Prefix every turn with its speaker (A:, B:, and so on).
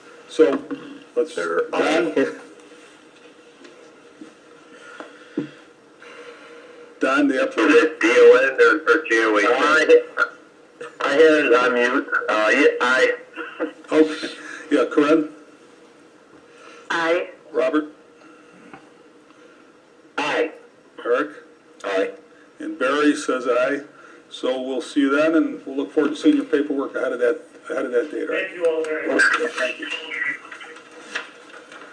A: So, let's,
B: They're-
A: Don, Don, the
B: Is
A: applicant,
B: it DON or, or GOE? I, I had it on mute. Uh, yeah, I,
A: okay, Oh, yeah, Corinne,
C: Aye.
A: Robert,
B: I,
A: Eric,
B: I.
A: and Barry says aye. So we'll see you then, and we'll look forward to seeing your paperwork ahead of that, ahead of that date, all right?
D: Thank you all very much.
A: Thank you.